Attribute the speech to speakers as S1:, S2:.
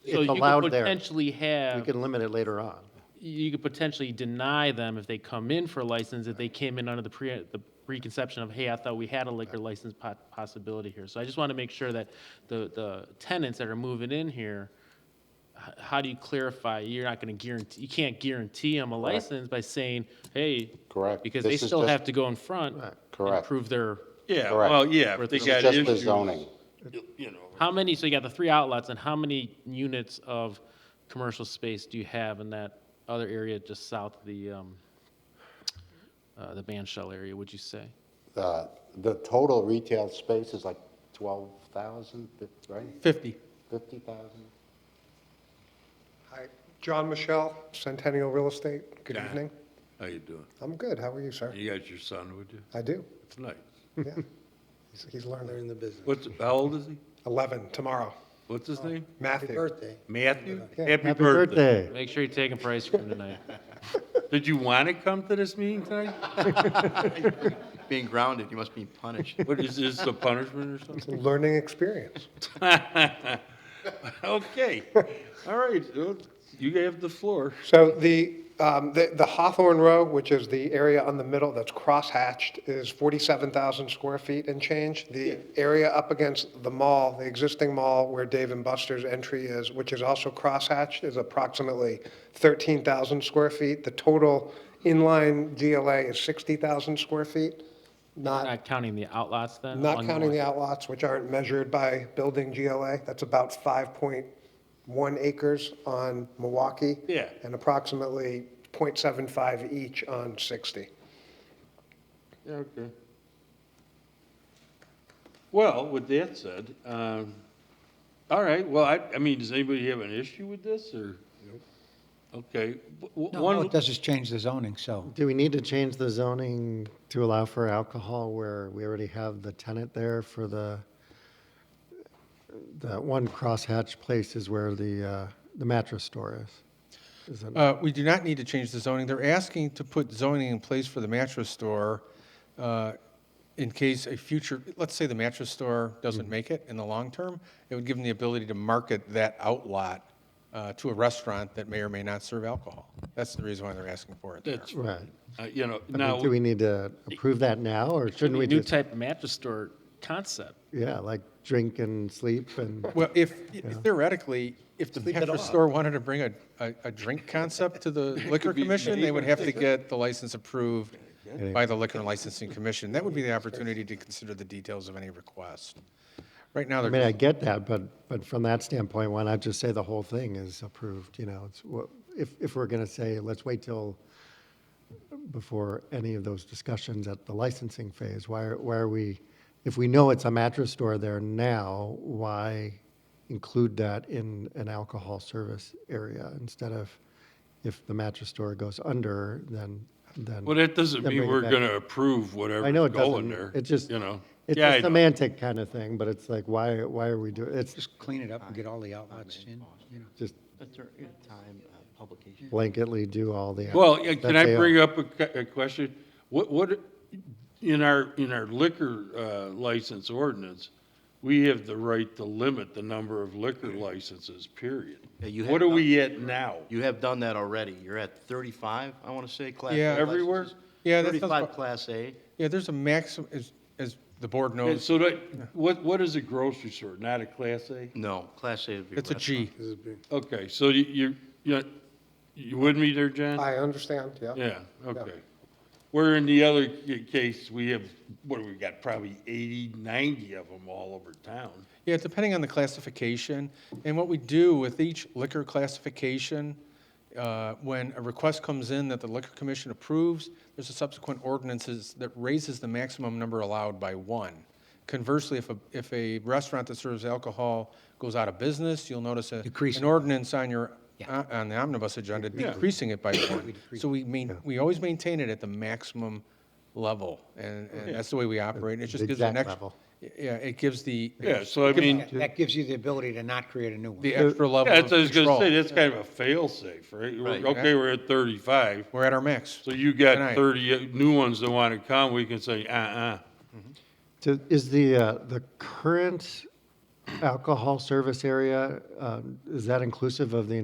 S1: So
S2: it's
S1: you could
S2: allowed there.
S1: Potentially
S2: You
S1: have,
S2: can limit it later on.
S1: you could potentially deny them if they come in for a license, if they came in under the pre, the preconception of, hey, I thought we had a liquor license po- possibility here. So I just want to make sure that the, the tenants that are moving in here, h- how do you clarify, you're not going to guarantee, you can't guarantee them a license by saying, hey.
S3: Correct.
S1: Because they
S3: This is
S1: still
S3: just-
S1: have to go in front.
S2: Right.
S3: Correct.
S1: And prove their,
S4: Yeah,
S3: Correct.
S4: well, yeah, if they
S3: It's
S1: This
S4: got
S3: just the
S4: issues.
S3: zoning.
S4: You know,
S1: how many, so you got the three outlets, and how many units of commercial space do you have in that other area just south of the, um, uh, the band shell area, would you say?
S3: Uh, The total retail space is like 12,000, fif- right?
S5: 50.
S3: 50,000?
S6: Hi, John Michelle, Centennial Real Estate. Good
S4: Yeah.
S6: evening.
S4: how you doing?
S6: I'm good. How are you, sir?
S4: You got your son with you?
S6: I do.
S4: It's nice.
S6: Yeah. He's, he's learning.
S5: in the business.
S4: What's, how old is he?
S6: 11 tomorrow.
S4: What's his name?
S5: Happy
S6: Matthew.
S5: birthday.
S4: Matthew?
S6: Yeah.
S4: Happy
S2: Happy
S4: birthday.
S2: birthday.
S1: Make sure you take a price from tonight.
S4: Did you want to come to this meeting tonight?
S7: Being grounded, you must be punished.
S4: What, is this a punishment or something?
S6: Learning experience.
S4: Okay, all right, well, you have the floor.
S6: So the, um, the the Hawthorne Row, which is the area on the middle that's cross-hatched, is 47,000 square feet and change. The area up against the mall, the existing mall where Dave and Buster's entry is, which is also cross-hatched, is approximately 13,000 square feet. The total inline GLA is 60,000 square feet, not,
S1: Not counting the outlots then?
S6: not
S1: on
S6: counting
S1: one-
S6: the outlots, which aren't measured by building GLA. That's about 5.1 acres on Milwaukee
S4: Yeah.
S6: and approximately .75 each on 60.
S4: Yeah, okay. Well, with that said, um, all right, well, I, I mean, does anybody have an issue with this, or? Okay. w- w-
S8: No,
S4: one-
S8: No, it doesn't change the zoning, so.
S2: Do we need to change the zoning to allow for alcohol where we already have the tenant there for the, that one crosshatch place is where the, uh, the mattress store is? Is it-
S5: Uh, We do not need to change the zoning. They're asking to put zoning in place for the mattress store uh, in case a future, let's say the mattress store doesn't make it in the long term, it would give them the ability to market that outlot uh, to a restaurant that may or may not serve alcohol. That's the reason why they're asking for it there.
S4: That's,
S2: Right.
S4: uh, you know,
S2: I mean,
S4: now.
S2: Do we need to approve that now, or shouldn't we
S1: New
S2: just,
S1: type of mattress store concept.
S2: yeah, like drink and sleep and?
S5: Well, if theoretically, if the mattress store wanted to bring a, a- a drink concept to the liquor commission, they would have to get the license approved by the liquor and licensing commission. That would be the opportunity to consider the details of any request. Right now,
S2: I mean, I
S5: they're,
S2: get that, but, but from that standpoint, why not just say the whole thing is approved, you know? It's, wha- if, if we're gonna say, let's wait till, before any of those discussions at the licensing phase, why, are- why are we, if we know it's a mattress store there now, why include that in an alcohol service area instead of, if the mattress store goes under, then, then.
S4: Well, that doesn't
S2: then
S4: mean
S2: bring it
S4: we're
S2: back.
S4: going to approve whatever's
S2: I know it doesn't,
S4: going there.
S2: it's just,
S4: You know?
S2: it's
S4: Yeah, I
S2: a
S4: know.
S2: semantic kind of thing, but it's like, why, why are we doing, it's
S8: Just clean it up and get all the outlets in, you know.
S2: just
S7: That's our time of publication.
S2: blanketly do all the.
S4: Well, yeah, can
S2: that's
S4: I
S2: AO.
S4: bring up a, que- a question? What, what, in our, in our liquor, uh, license ordinance, we have the right to limit the number of liquor licenses, period.
S7: Yeah, you
S4: What are
S7: have
S4: we at now?
S7: You have done that already. You're at 35, I want to say, Class A
S5: Yeah.
S4: Everywhere?
S7: licenses.
S5: Yeah, that sounds
S7: 35
S5: about-
S7: Class A.
S5: yeah, there's a maximum, as, as the board
S4: And
S5: knows,
S4: so that, what, what is a grocery store? Not a Class A?
S7: No, Class A would be.
S5: it's a
S7: restaurant.
S5: G.
S4: Okay, so you, you, you- you with me there, John?
S6: I understand, yeah.
S4: Yeah, okay. Where in the other c- case, we have, what, do we got probably 80, 90 of them all over town.
S5: Yeah, depending on the classification. And what we do with each liquor classification, uh, when a request comes in that the Liquor Commission approves, there's a subsequent ordinances that raises the maximum number allowed by one. Conversely, if a, if a restaurant that serves alcohol goes out of business, you'll notice a,
S8: Decrease
S5: an
S8: it.
S5: ordinance on your, on on the omnibus agenda decreasing it by one. So we main, we always maintain it at the maximum level, and, and that's the way we operate. It just
S2: The
S5: gives an
S2: exact
S5: extra.
S2: level.
S5: Yeah, it gives the,
S4: Yeah, so I mean.
S8: That gives you the ability to not create a new one.
S5: the extra level
S4: Yeah,
S5: of
S4: that's what I was gonna say,
S5: control.
S4: that's kind of a fail-safe, right? We're-
S7: Right.
S4: Okay, we're at thirty-five,
S5: We're at our max.
S4: so you got
S5: Tonight.
S4: thirty uh, new ones that wanna come, we can say, uh-uh.
S2: To- Is the, uh, the current alcohol service area, uh, um, is that inclusive of the